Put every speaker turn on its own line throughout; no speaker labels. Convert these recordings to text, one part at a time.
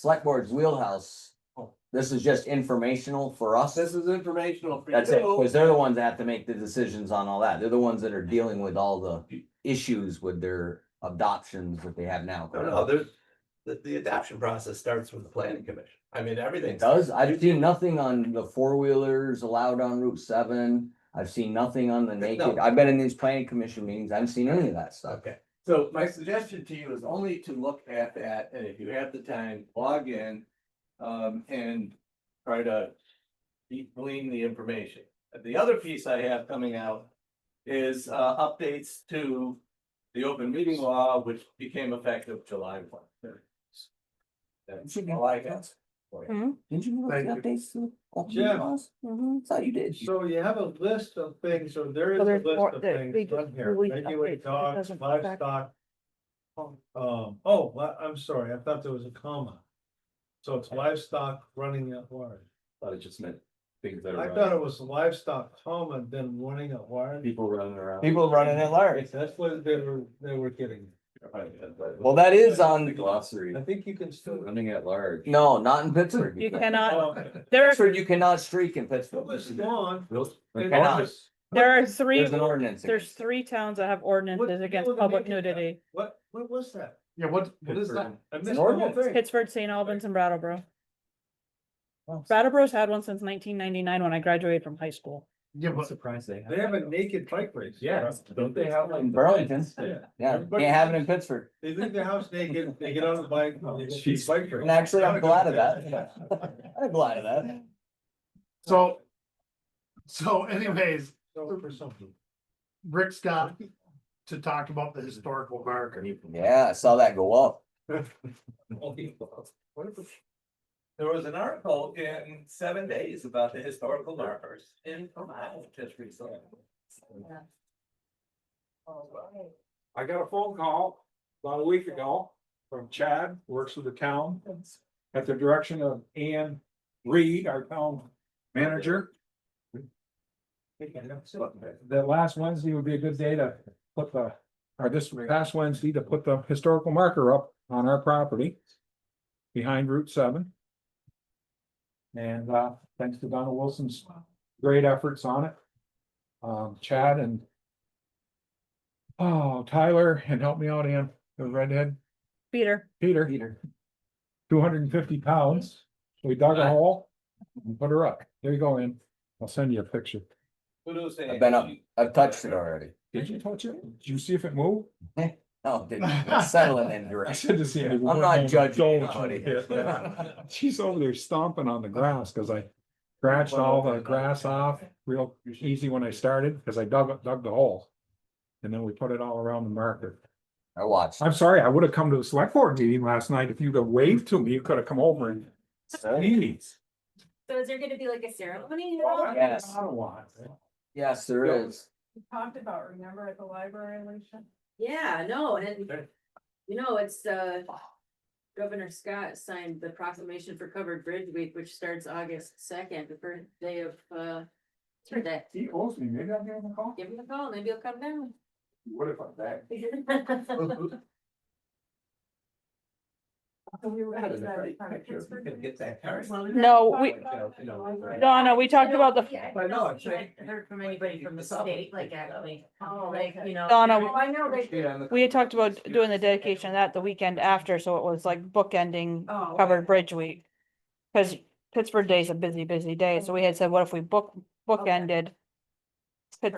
select board's wheelhouse. This is just informational for us.
This is informational for you.
That's it, because they're the ones that have to make the decisions on all that. They're the ones that are dealing with all the issues with their adoptions that they have now.
No, no, there's, the, the adoption process starts with the planning commission. I mean, everything.
It does. I've seen nothing on the four wheelers allowed on Route seven. I've seen nothing on the naked.
No.
I've been in these planning commission meetings. I haven't seen any of that stuff.
Okay,
So my suggestion to you is only to look at that, and if you have the time, log in, um, and try to de- glean the information. The other piece I have coming out is, uh, updates to the open meeting law, which became effective July one. That's all I got.
Didn't you
Thank you.
updates to?
Yeah.
Thought you did.
So you have a list of things, so there is
So
a
there's more-
list of
there- we
things
just
on here,
released updates,
regulated
that
dogs,
doesn't affect-
livestock.
Oh.
Um, oh, li- I'm sorry, I thought there was a comma. So it's livestock running at large.
Thought it just meant things that
I
are
thought it
running,
was livestock comma, then running at large.
people running around.
People running at large.
That's what they were, they were getting.
Well, that is
The
on,
glossary,
I think you can still.
running at large.
no, not in Pittsburgh.
You
can't.
cannot,
Um,
there, are-
Pittsburgh, you cannot streak in
It was
Pittsburgh.
gone.
Those-
You
and
cannot.
just-
there are three,
There's an ordinance.
there's three towns that have ordinances against
what-
public nudity.
What, what was that?
Yeah, what,
what is that?
I
an
missed the whole
ordinance.
thing.
Pittsburgh, St. Albans and Brattleboro.
Wow.
Brattleboro's had one since nineteen ninety-nine when I graduated from high school.
Yeah,
I'm surprised they.
They have a naked bike race.
Yeah, don't they have like.
In Burlington,
Yeah.
yeah, can't have it in Pittsburgh.
They leave their house naked, they get on the bike.
Oh,
they go
Jeez.
bike ride.
And actually, I'm glad of that. I'm glad of that.
So. So anyways,
So for something.
Rick's got to talk about the historical marker.
Yeah, I saw that go up.
There was an article in seven days about the historical markers in Ohio just recently.
I got a phone call about a week ago from Chad, works with the town. At the direction of Ann Reed, our town manager. That last Wednesday would be a good day to put the, or this past Wednesday to put the historical marker up on our property. Behind Route seven. And uh, thanks to Donna Wilson's great efforts on it. Um, Chad and Oh, Tyler, and help me out, Ann, the redhead,
Peter,
Peter,
Peter.
two hundred and fifty pounds. We dug a
Nice.
hole and put her up. There you go, Ann. I'll send you a picture.
Kudos to
I've been up,
Angie.
I've touched it already.
Did you touch it? Did you see if it moved?
No, didn't It's settling in
I
direction.
should have seen it.
I'm not judging
Don't you?
anybody.
Yeah. She's over there stomping on the grass because I scratched all the grass off real easy when I started because I dug, dug the hole. And then we put it all around the marker.
I watched.
I'm sorry, I would have come to the select board meeting last night. If you'd have waved to me, you could have come over and Please.
So is there gonna be like a ceremony?
Yes.
Well,
Yes, there is.
Talked about, remember at the library, Alicia? Yeah, no, and
Sure.
you know, it's uh. Governor Scott signed the proclamation for Covered Bridge Week, which starts August second, the first day of uh. Sure that,
He owes me, maybe I'll give him a call.
give him a call, maybe he'll come down.
What if I'm back? Get that card.
No, we- Donna, we talked about the,
I know, I think-
Heard from anybody from the state, like actually, like, you know.
Donna,
Oh, I know, they.
Yeah, and the-
we had talked about doing the dedication of that the weekend after, so it was like bookending
Oh.
covered bridge week. Cause Pittsburgh Day's a busy, busy day, so we had said, what if we book, bookended? Pit-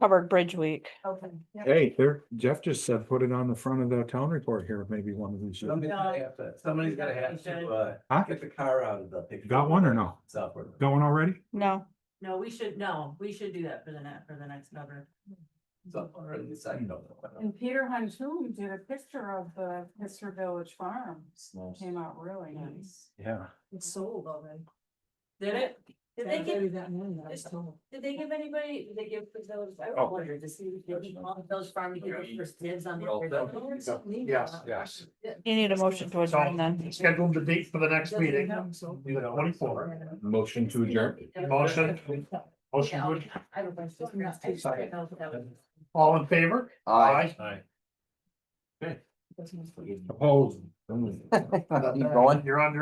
Covered bridge week.
Okay.
Hey, there, Jeff just said, put it on the front of the town report here, maybe one of these.
Somebody's gonna have to, somebody's gonna have to, uh,
Huh?
get the car out of the picture.
Got one or no?
Software.
Going already?
No,
No, we should, no, we should do that for the net, for the next governor.
Software, at least I
Hmm.
know.
And Peter Huntoon did a picture of the Mr. Village Farm, came out really nice.
Yeah.
It's sold already. Did it? Did they give, did they give anybody, did they give the village, I
Oh.
wondered to see if they did want the village farm to give the first dibs on.
Well,
the-
that-
Or something.
Yes,
yes.
you need a motion to adjourn then.
Scheduled the date for the next meeting, twenty-four.
Motion to adjourn.
Motion. Motion,
Yeah, I'll-
good.
I don't know. I just
Second.
didn't know if that was-
all in favor?
Aye.
Opposed.
Keep going.
You're under.